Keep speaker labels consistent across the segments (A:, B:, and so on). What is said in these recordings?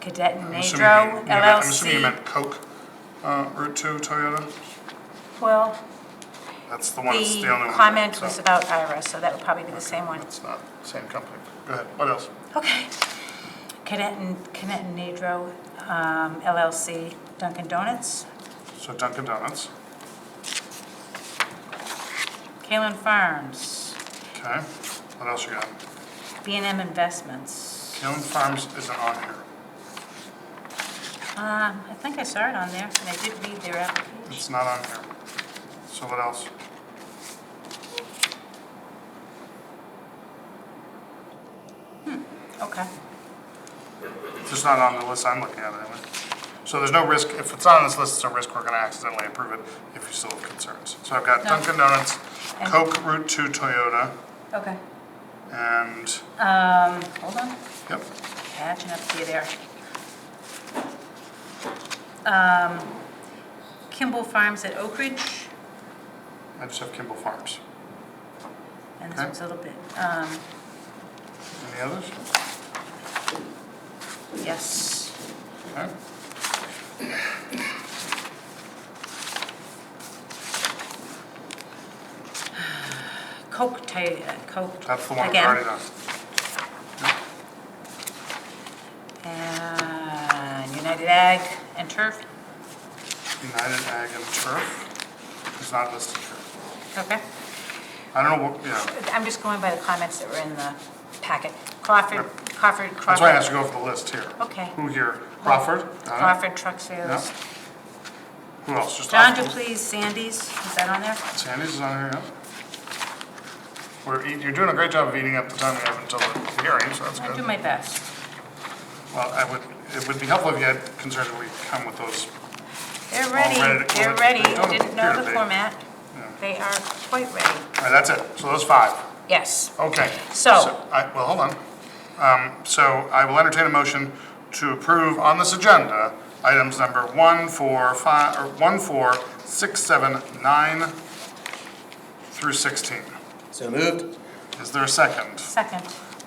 A: Cadet
B: I'm assuming you mean-
A: Nadro
B: you meant- I'm assuming you
A: LLC.
B: meant Coke uh, Route 2 Toyota?
A: Well,
B: That's the one, it's the only
A: the
B: one.
A: comment
B: so-
A: was about IRA, so that would probably be the same one.
B: It's not the same company. Go ahead, what else?
A: Okay. Cadet and, Cadet and Nadro um, LLC, Dunkin' Donuts,
B: So Dunkin' Donuts,
A: Kalen Farms,
B: okay. What else you got?
A: b and M Investments.
B: Kiln Farms isn't on here.
A: Um, I think I saw it on there, and I did read their application.
B: It's not on here. So what else?
A: Okay.
B: It's just not on the list I'm looking at anyway. So there's no risk, if it's on this list, it's a risk we're going to accidentally approve it if you still have concerns. So I've got
A: No.
B: Dunkin' Donuts,
A: And-
B: Coke Route 2 Toyota,
A: Okay.
B: and,
A: Um, hold on,
B: yep,
A: catching up to you there. Um, Kimball Farms at Oak Ridge,
B: I just have Kimball Farms.
A: and this
B: Okay.
A: one's a little bit, um,
B: Any others?
A: yes.
B: Okay.
A: Coke, Ta- uh, Coke.
B: That's the one we've
A: again.
B: already done.
A: And United Ag and Turf,
B: United Ag and Turf is not listed here.
A: okay.
B: I don't know, what yeah,
A: I'm just going by the comments that were in the packet. Crawford, Crawford, Crawford.
B: that's why I asked you to go for the list here.
A: Okay.
B: Who here? Crawford? Got it.
A: Crawford Truck
B: Yeah.
A: Sales.
B: Who else? Just
A: John
B: off-
A: DePlease, Sandy's, is that on there?
B: Sandy's is on here, yeah. We're, eat- you're doing a great job of eating up the time we have until the hearing, so that's
A: I do
B: good.
A: my best.
B: Well, I would, it would be helpful if you had concerns we come with those.
A: They're
B: ready
A: ready,
B: to-
A: they're
B: they
A: ready.
B: don't
A: Didn't
B: appear
A: know
B: to
A: the
B: be.
A: format. They are quite ready.
B: All right, that's it. So those five.
A: Yes.
B: Okay.
A: So-
B: I, well, hold on. Um, so I will entertain a motion to approve on this agenda items number one, four, five, or one, four, six, seven, nine through sixteen.
C: So moved?
B: Is there a second?
A: Second.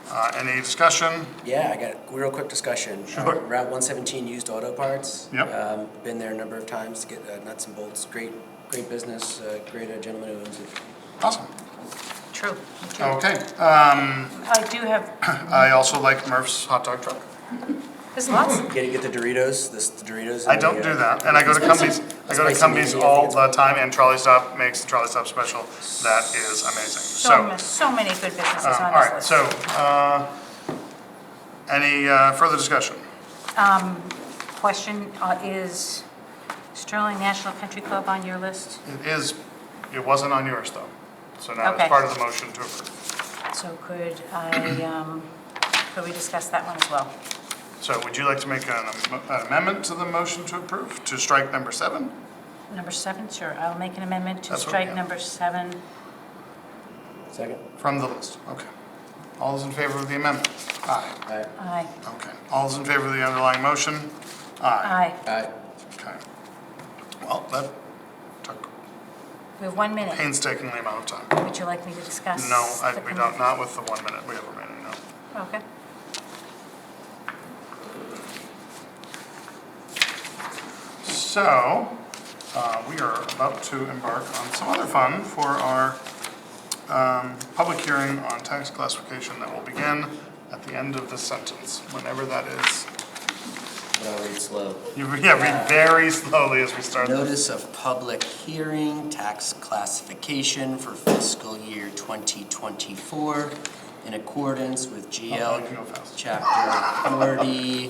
B: Uh, any discussion?
C: Yeah, I got a real quick discussion. Uh,
B: Sure.
C: Route one seventeen used auto parts.
B: Yep.
C: Um, Been there a number of times to get uh, nuts and bolts. Great, great business, uh, great uh, gentleman who owns it.
B: Awesome.
A: True. True.
B: Okay. Um,
A: I do have,
B: I also like Murph's hot dog truck.
A: there's lots.
C: Get to get the Doritos, this the Doritos. and
B: I
C: the,
B: don't
C: uh,
B: do that, and I go to Cumbies, I go to
C: Spicy
B: Cumbies
C: mayonnaise.
B: all the time, and Trolley Stop makes the Trolley Stop special. That is amazing.
A: So,
B: So,
A: ma- so many good businesses
B: um, all
A: on this
B: right,
A: list.
B: so, uh, any uh, further discussion?
A: Question uh, is Sterling National Country Club on your list?
B: It is, it wasn't on yours, though, so now it's
A: Okay.
B: part of the motion to approve.
A: So could I, um, could we discuss that one as well?
B: So would you like to make an am- an amendment to the motion to approve, to strike number seven?
A: Number seven, sure. I'll make an amendment to
B: That's what- yeah.
A: strike number seven.
C: Second?
B: From the list, okay. All those in favor of the amendment? Aye.
C: Aye.
A: Aye.
B: Okay. All those in favor of the underlying motion? Aye.
A: Aye.
C: Aye.
B: Okay. Well, that took
A: We have one minute.
B: painstakingly amount of time.
A: Would you like me to discuss?
B: No, I,
A: the
B: we
A: com-
B: don't, not with the one minute we have remaining, no.
A: Okay.
B: So, uh, we are about to embark on some other fun for our, um, public hearing on tax classification that will begin at the end of this sentence, whenever that is.
C: But I'll read slow.
B: You, yeah, read very slowly as we start.
C: Notice of public hearing, tax classification for fiscal year 2024 in accordance with
B: Oh, you can go
C: GL
B: fast.
C: Chapter 40,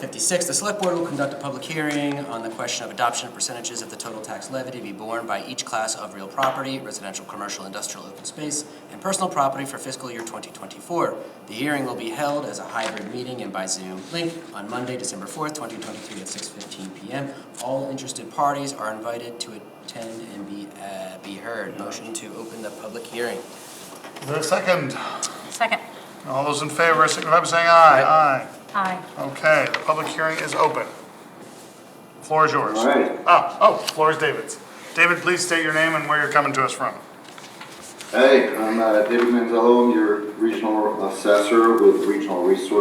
C: 56. The Select Board will conduct a public hearing on the question of adoption of percentages of the total tax levy to be borne by each class of real property, residential, commercial, industrial, open space, and personal property for fiscal year 2024. The hearing will be held as a hybrid meeting and by Zoom link on Monday, December 4th, 2023 at 6:15 PM. All interested parties are invited to attend and be, uh, be heard. Motion to open the public hearing.
B: Is there a second?
A: Second.
B: All those in favor, signify by saying aye. Aye.
A: Aye.
B: Okay, the public hearing is open. Floor is yours.
D: All right.
B: Ah, oh, floor is David's. David, please state your name and where you're coming to us from.
D: Hey, I'm uh, David Manzello, I'm your regional assessor with Regional Resource